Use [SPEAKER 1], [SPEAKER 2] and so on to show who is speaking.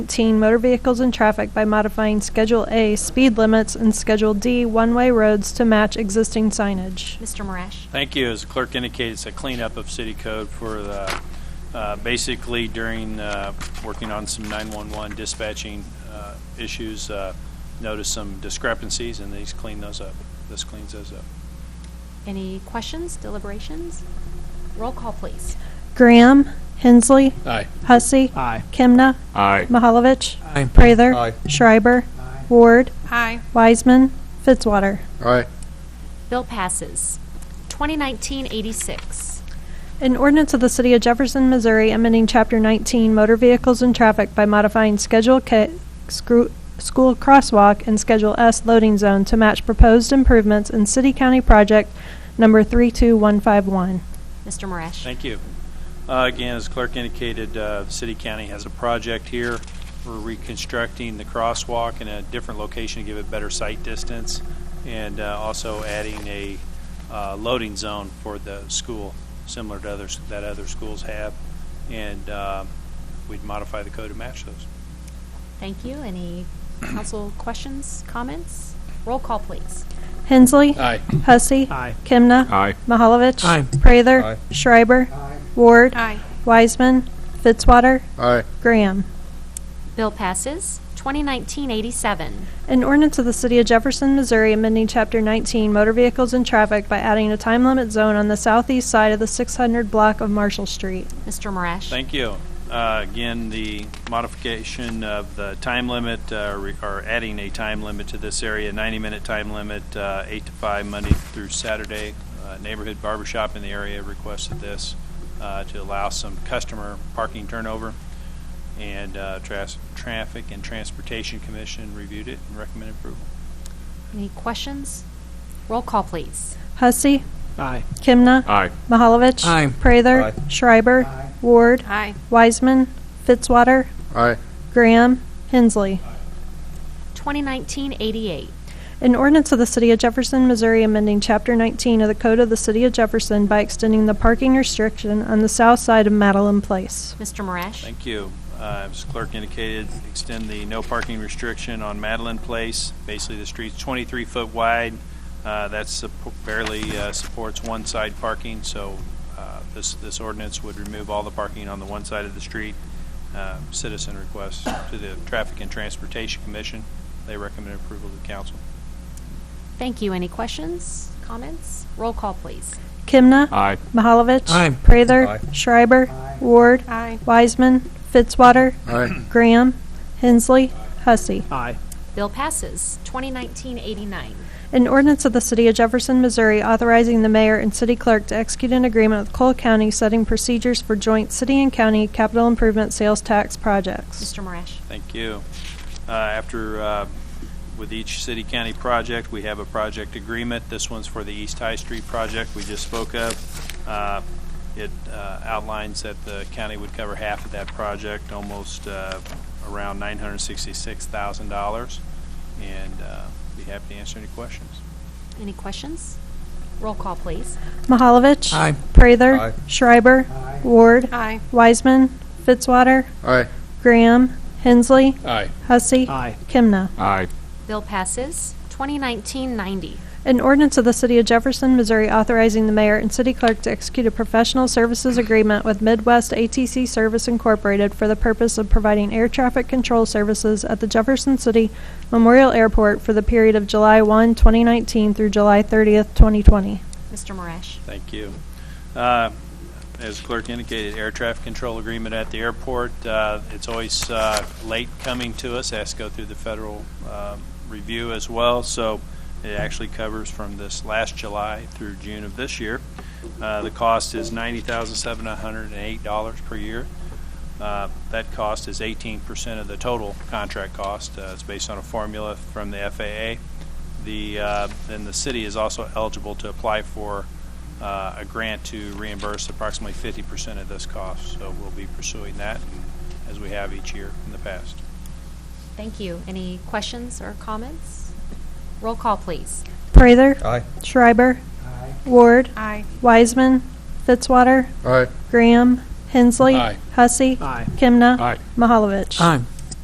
[SPEAKER 1] 19 motor vehicles and traffic by modifying Schedule A speed limits and Schedule D one-way roads to match existing signage.
[SPEAKER 2] Mr. Marash?
[SPEAKER 3] Thank you. As the clerk indicated, it's a cleanup of city code for the, uh, basically during, uh, working on some 911 dispatching uh, issues, uh, noticed some discrepancies, and these clean those up. This cleans those up.
[SPEAKER 2] Any questions, deliberations? Roll call, please.
[SPEAKER 1] Graham, Hensley,
[SPEAKER 4] Aye.
[SPEAKER 1] Hussey,
[SPEAKER 5] Aye.
[SPEAKER 1] Kimna,
[SPEAKER 4] Aye.
[SPEAKER 1] Mahalovich,
[SPEAKER 5] Aye.
[SPEAKER 1] Prather,
[SPEAKER 4] Aye.
[SPEAKER 1] Schreiber, Ward,
[SPEAKER 2] Aye.
[SPEAKER 1] Wiseman, Fitzwater.
[SPEAKER 4] Aye.
[SPEAKER 2] Bill passes. 2019-86.
[SPEAKER 1] An ordinance of the City of Jefferson, Missouri, amending Chapter 19 Motor Vehicles and Traffic by modifying Schedule K, scru- School Crosswalk and Schedule S Loading Zone to match proposed improvements in City County Project Number 32151.
[SPEAKER 2] Mr. Marash?
[SPEAKER 3] Thank you. Uh, Again, as clerk indicated, uh, City County has a project here. We're reconstructing the crosswalk in a different location to give it better sight distance, and uh, also adding a uh, loading zone for the school, similar to others, that other schools have. And uh, we'd modify the code to match those.
[SPEAKER 2] Thank you. Any council questions, comments? Roll call, please.
[SPEAKER 1] Hensley.
[SPEAKER 4] Aye.
[SPEAKER 1] Hussey.
[SPEAKER 5] Aye.
[SPEAKER 1] Kimna.
[SPEAKER 4] Aye.
[SPEAKER 1] Mahalovich.
[SPEAKER 5] Aye.
[SPEAKER 1] Prather.
[SPEAKER 4] Aye.
[SPEAKER 1] Schreiber. Ward.
[SPEAKER 2] Aye.
[SPEAKER 1] Wiseman. Fitzwater.
[SPEAKER 4] Aye.
[SPEAKER 1] Graham.
[SPEAKER 2] Bill passes. 2019-87.
[SPEAKER 1] An ordinance of the City of Jefferson, Missouri amending Chapter 19 Motor Vehicles and Traffic by adding a time limit zone on the southeast side of the 600 block of Marshall Street.
[SPEAKER 2] Mr. Marash?
[SPEAKER 3] Thank you. Uh, Again, the modification of the time limit, uh, re- or adding a time limit to this area, 90-minute time limit, uh, 8 to 5, Monday through Saturday. Uh, Neighborhood barber shop in the area requested this uh, to allow some customer parking turnover, and uh, tras- Traffic and Transportation Commission reviewed it and recommended approval.
[SPEAKER 2] Any questions? Roll call, please.
[SPEAKER 1] Hussey.
[SPEAKER 5] Aye.
[SPEAKER 1] Kimna.
[SPEAKER 4] Aye.
[SPEAKER 1] Mahalovich.
[SPEAKER 5] Aye.
[SPEAKER 1] Prather.
[SPEAKER 4] Aye.
[SPEAKER 1] Schreiber. Ward.
[SPEAKER 2] Aye.
[SPEAKER 1] Wiseman. Fitzwater.
[SPEAKER 4] Aye.
[SPEAKER 1] Graham. Hensley.
[SPEAKER 2] 2019-88.
[SPEAKER 1] An ordinance of the City of Jefferson, Missouri amending Chapter 19 of the Code of the City of Jefferson by extending the parking restriction on the south side of Madeline Place.
[SPEAKER 2] Mr. Marash?
[SPEAKER 3] Thank you. Uh, As clerk indicated, extend the no parking restriction on Madeline Place. Basically, the street's 23 foot wide. Uh, That suppo- barely uh, supports one side parking, so uh, this this ordinance would remove all the parking on the one side of the street. Uh, Citizen request to the Traffic and Transportation Commission. They recommend approval to the council.
[SPEAKER 2] Thank you. Any questions, comments? Roll call, please.
[SPEAKER 1] Kimna.
[SPEAKER 4] Aye.
[SPEAKER 1] Mahalovich.
[SPEAKER 5] Aye.
[SPEAKER 1] Prather.
[SPEAKER 4] Aye.
[SPEAKER 1] Schreiber. Ward.
[SPEAKER 2] Aye.
[SPEAKER 1] Wiseman. Fitzwater.
[SPEAKER 4] Aye.
[SPEAKER 1] Graham. Hensley. Hussey.
[SPEAKER 5] Aye.
[SPEAKER 2] Bill passes. 2019-89.
[SPEAKER 1] An ordinance of the City of Jefferson, Missouri authorizing the mayor and city clerk to execute an agreement with Cole County setting procedures for joint city and county capital improvement sales tax projects.
[SPEAKER 2] Mr. Marash?
[SPEAKER 3] Thank you. Uh, After, uh, with each city-county project, we have a project agreement. This one's for the East High Street project we just spoke of. Uh, It uh, outlines that the county would cover half of that project, almost uh, around $966,000. And uh, be happy to answer any questions.
[SPEAKER 2] Any questions? Roll call, please.
[SPEAKER 1] Mahalovich.
[SPEAKER 5] Aye.
[SPEAKER 1] Prather.
[SPEAKER 4] Aye.
[SPEAKER 1] Schreiber. Ward.
[SPEAKER 2] Aye.
[SPEAKER 1] Wiseman. Fitzwater.
[SPEAKER 4] Aye.
[SPEAKER 1] Graham. Hensley.
[SPEAKER 4] Aye.
[SPEAKER 1] Hussey.
[SPEAKER 5] Aye.
[SPEAKER 1] Kimna.
[SPEAKER 4] Aye.
[SPEAKER 2] Bill passes. 2019-90.
[SPEAKER 1] An ordinance of the City of Jefferson, Missouri authorizing the mayor and city clerk to execute a professional services agreement with Midwest ATC Service Incorporated for the purpose of providing air traffic control services at the Jefferson City Memorial Airport for the period of July 1, 2019 through July 30th, 2020.
[SPEAKER 2] Mr. Marash?
[SPEAKER 3] Thank you. Uh, As clerk indicated, air traffic control agreement at the airport, uh, it's always uh, late coming to us, has to go through the federal um, review as well, so it actually covers from this last July through June of this year. Uh, The cost is $90,708 per year. Uh, That cost is 18% of the total contract cost. Uh, It's based on a formula from the FAA. The, uh, then the city is also eligible to apply for uh, a grant to reimburse approximately 50% of this cost. So we'll be pursuing that and- as we have each year in the past.
[SPEAKER 2] Thank you. Any questions or comments? Roll call, please.
[SPEAKER 1] Prather.
[SPEAKER 4] Aye.
[SPEAKER 1] Schreiber. Ward.
[SPEAKER 2] Aye.
[SPEAKER 1] Wiseman. Fitzwater.
[SPEAKER 4] Aye.
[SPEAKER 1] Graham. Hensley.
[SPEAKER 4] Aye.
[SPEAKER 1] Hussey.
[SPEAKER 5] Aye.
[SPEAKER 1] Kimna.
[SPEAKER 4] Aye.
[SPEAKER 1] Mahalovich.
[SPEAKER 5] Aye.